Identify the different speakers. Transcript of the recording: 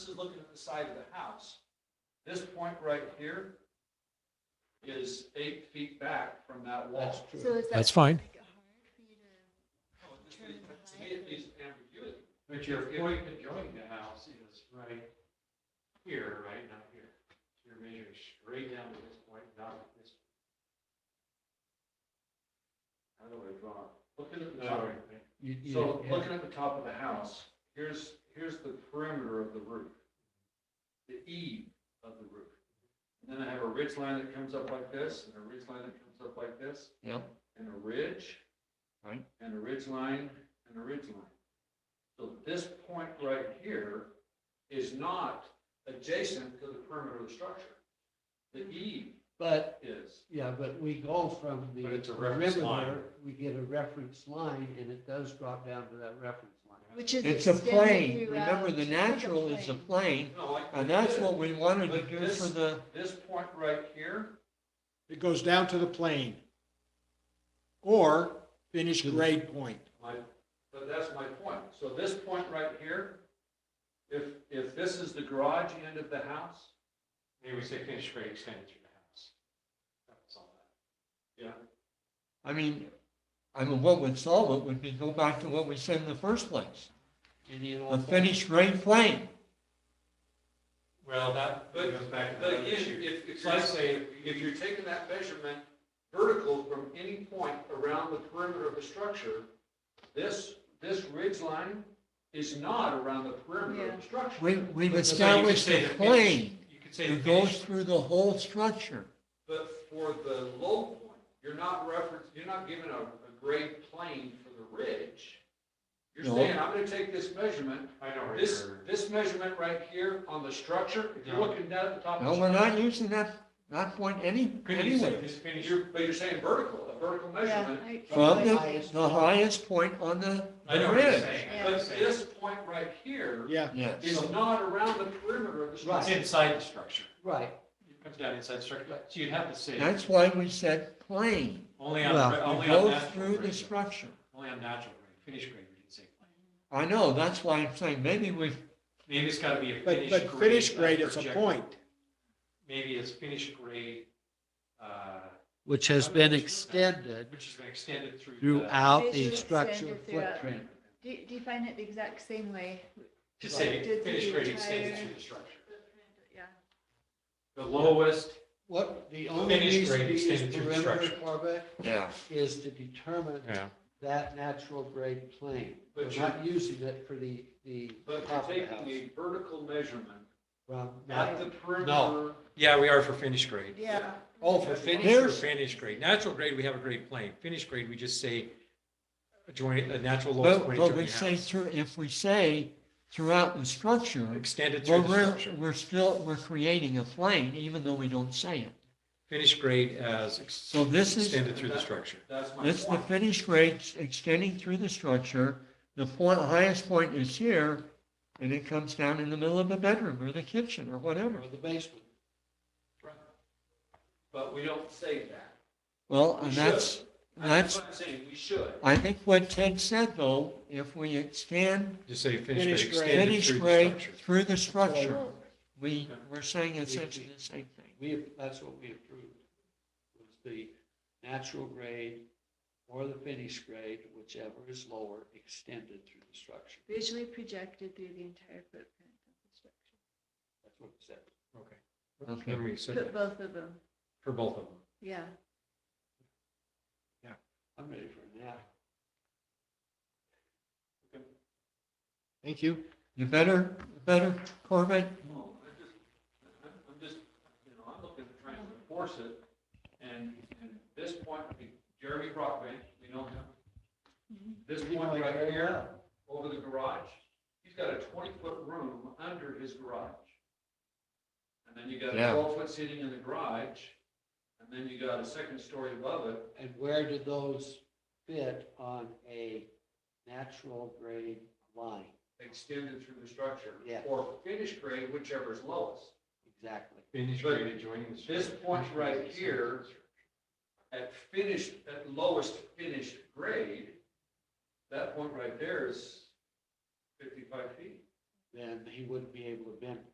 Speaker 1: is looking at the side of the house. This point right here is eight feet back from that wall.
Speaker 2: So is that?
Speaker 3: That's fine.
Speaker 2: like, hard for you to-
Speaker 1: No, it just- To me, it needs ambiguity.
Speaker 4: But your point adjoining the house is right here, right, not here. So You're measuring straight down to this point, not at this. I don't know where it's wrong.
Speaker 1: Looking at the top.
Speaker 4: No, right.
Speaker 5: You- you-
Speaker 1: So
Speaker 5: yeah.
Speaker 1: looking at the top of the house, here's, here's the perimeter of the roof, the eave of the roof. And then I have a ridge line that comes up like this, and a ridge line that comes up like this,
Speaker 5: Yeah,
Speaker 1: and a ridge.
Speaker 5: Right.
Speaker 1: And a ridge line, and a ridge line. So this point right here is not adjacent to the perimeter of the structure. The eave
Speaker 6: But,
Speaker 1: is.
Speaker 6: yeah, but we go from the
Speaker 4: But it's a reference
Speaker 6: perimeter, we get a reference line, and it does drop down to that reference line.
Speaker 2: Which is.
Speaker 5: it's a
Speaker 2: extended
Speaker 5: plane.
Speaker 2: throughout.
Speaker 5: Remember, the
Speaker 2: It's like
Speaker 5: natural is a plane,
Speaker 1: No, I-
Speaker 5: and that's what we wanted to
Speaker 1: But
Speaker 5: do
Speaker 1: this-
Speaker 5: for the,
Speaker 1: This point right here,
Speaker 3: It goes down to the plane. Or finish grade point.
Speaker 1: My, but that's my point. So this point right here, if, if this is the garage end of the house,
Speaker 4: Maybe we say finish straight extended through the house. That's all that.
Speaker 5: I mean, I mean, what would solve it would be go back to what we said in the first place,
Speaker 6: And you
Speaker 5: a
Speaker 6: know,
Speaker 5: finished grade plane.
Speaker 4: Well, that
Speaker 1: But-
Speaker 4: goes back to
Speaker 1: but
Speaker 4: the
Speaker 1: again,
Speaker 4: issue.
Speaker 1: if, it's like saying, if you're taking that measurement vertical from any point around the perimeter of the structure, this, this ridge line is not around the perimeter of the structure.
Speaker 5: We, we've
Speaker 4: But- but so you could
Speaker 5: established
Speaker 4: say
Speaker 5: a
Speaker 4: the finish-
Speaker 5: plane
Speaker 4: You could say the
Speaker 5: that goes
Speaker 4: finish,
Speaker 5: through the whole structure.
Speaker 1: But for the low point, you're not reference, you're not giving a, a grade plane for the ridge. You're
Speaker 5: No.
Speaker 1: saying, I'm gonna take this measurement,
Speaker 4: I know where
Speaker 1: This,
Speaker 4: you're.
Speaker 1: this measurement right here on the structure, if you're
Speaker 4: No.
Speaker 1: looking down at the top. of
Speaker 5: No,
Speaker 1: the
Speaker 5: we're
Speaker 1: structure,
Speaker 5: not using that, that point any,
Speaker 4: Couldn't you say
Speaker 5: anywhere.
Speaker 4: this finish?
Speaker 1: You're, but you're saying vertical, a vertical
Speaker 2: Yeah,
Speaker 1: measurement.
Speaker 2: I-
Speaker 5: From
Speaker 2: I-
Speaker 5: the, the highest point on the
Speaker 4: I know
Speaker 5: the
Speaker 4: what you're
Speaker 5: ridge.
Speaker 4: saying. I know what you're
Speaker 1: But
Speaker 4: saying.
Speaker 1: this point right here
Speaker 3: Yeah.
Speaker 5: Yes.
Speaker 1: is not around the perimeter of the
Speaker 4: It's
Speaker 1: structure.
Speaker 4: inside the structure.
Speaker 6: right,
Speaker 4: It comes down inside the structure. So you'd have to say.
Speaker 5: That's why we said plane.
Speaker 4: Only on,
Speaker 5: Well,
Speaker 4: only
Speaker 5: it
Speaker 4: on
Speaker 5: goes
Speaker 4: natural
Speaker 5: through the
Speaker 4: grade.
Speaker 5: structure.
Speaker 4: Only on natural grade, finished grade, we didn't say plan.
Speaker 5: I know, that's why I'm saying maybe we've,
Speaker 4: Maybe it's gotta be a
Speaker 3: But,
Speaker 4: finished grade.
Speaker 3: but finish
Speaker 4: not
Speaker 3: grade is a
Speaker 4: projected.
Speaker 3: point.
Speaker 4: Maybe it's finished grade, uh,
Speaker 6: which has
Speaker 4: I'm
Speaker 6: been
Speaker 4: not sure.
Speaker 6: extended
Speaker 4: which has been extended through. the-
Speaker 6: throughout the
Speaker 2: Visually
Speaker 6: structure
Speaker 2: extended throughout.
Speaker 6: footprint.
Speaker 2: Do, do you find it the exact same way?
Speaker 4: Just say
Speaker 2: Did the
Speaker 4: finished grade
Speaker 2: entire-
Speaker 4: extended through the structure.
Speaker 2: Yeah.
Speaker 4: The lowest,
Speaker 6: What, the only
Speaker 4: Finished
Speaker 6: reason
Speaker 4: grade
Speaker 6: we use
Speaker 4: extended through the
Speaker 6: perimeter
Speaker 4: structure.
Speaker 6: Corbett
Speaker 5: yeah.
Speaker 6: is to determine
Speaker 4: Yeah.
Speaker 6: that natural grade plane. We're
Speaker 1: But you're,
Speaker 6: not using it for the, the
Speaker 1: but
Speaker 6: top of
Speaker 1: you're
Speaker 6: the
Speaker 1: taking
Speaker 6: house.
Speaker 1: a vertical measurement
Speaker 6: From
Speaker 1: at
Speaker 6: that,
Speaker 1: the perimeter.
Speaker 4: yeah, we are for finished grade.
Speaker 2: Yeah.
Speaker 6: oh,
Speaker 4: For
Speaker 6: for
Speaker 4: finished or
Speaker 6: There's-
Speaker 4: finished grade. Natural grade, we have a grade plane. Finished grade, we just say joint, a natural lowest
Speaker 5: But,
Speaker 4: point.
Speaker 5: but
Speaker 4: adjoining
Speaker 5: we
Speaker 4: house.
Speaker 5: say through, if we say throughout the structure,
Speaker 4: Extended
Speaker 5: well,
Speaker 4: through the
Speaker 5: we're,
Speaker 4: structure.
Speaker 5: we're still, we're creating a plane, even though we don't say it.
Speaker 4: Finished grade as ex-
Speaker 5: So this is-
Speaker 4: extended through the structure.
Speaker 1: That's my
Speaker 5: It's the
Speaker 1: point.
Speaker 5: finished grade extending through the structure. The point, highest point is here, and it comes down in the middle of the bedroom or the kitchen or whatever.
Speaker 6: or the basement.
Speaker 1: But we don't say that.
Speaker 5: Well,
Speaker 1: We
Speaker 5: and
Speaker 1: should.
Speaker 5: that's,
Speaker 1: That's
Speaker 5: that's,
Speaker 1: what I'm saying, we should.
Speaker 5: I think what Ted said though, if we extend
Speaker 4: Just say
Speaker 3: Finished
Speaker 4: finished
Speaker 3: grade.
Speaker 4: grade extended
Speaker 5: finished
Speaker 4: through the
Speaker 5: grade
Speaker 4: structure.
Speaker 5: through the structure,
Speaker 6: Well,
Speaker 5: we, we're saying
Speaker 6: we-
Speaker 5: essentially the same thing.
Speaker 6: We, that's what we approved, was the natural grade or the finished grade, whichever is lower, extended through the structure.
Speaker 2: Visually projected through the entire footprint of
Speaker 6: That's what it said.
Speaker 4: Okay.
Speaker 5: Okay.
Speaker 4: Remember you
Speaker 2: the
Speaker 4: said
Speaker 2: structure. Put
Speaker 4: that
Speaker 2: both of them,
Speaker 4: for both of them.
Speaker 2: yeah.
Speaker 6: I'm ready for a nap.
Speaker 3: Thank you.
Speaker 5: You better, better, Corbett,
Speaker 1: No, I just, I'm, I'm just, you know, I'm looking at trying to enforce it, and, and this point, I think Jeremy Brockman, we know him. This
Speaker 6: We know
Speaker 1: point
Speaker 6: him
Speaker 1: right
Speaker 6: very
Speaker 1: here,
Speaker 6: well.
Speaker 1: over the garage, he's got a twenty-foot room under his garage. And then you got
Speaker 5: Yeah.
Speaker 1: a twelve-foot seating in the garage, and then you got a second story above it.
Speaker 6: And where do those fit on a natural grade line?
Speaker 1: Extended through the structure.
Speaker 6: Yeah.
Speaker 1: Or finished grade, whichever is lowest.
Speaker 6: Exactly.
Speaker 4: Finished
Speaker 1: But
Speaker 4: grade adjoining the structure.
Speaker 1: this point
Speaker 4: Finished
Speaker 1: right
Speaker 4: grade extended
Speaker 1: here-
Speaker 4: through the structure.
Speaker 1: at finished, at lowest finished grade, that point right there is fifty-five feet.
Speaker 5: then he wouldn't be able to bend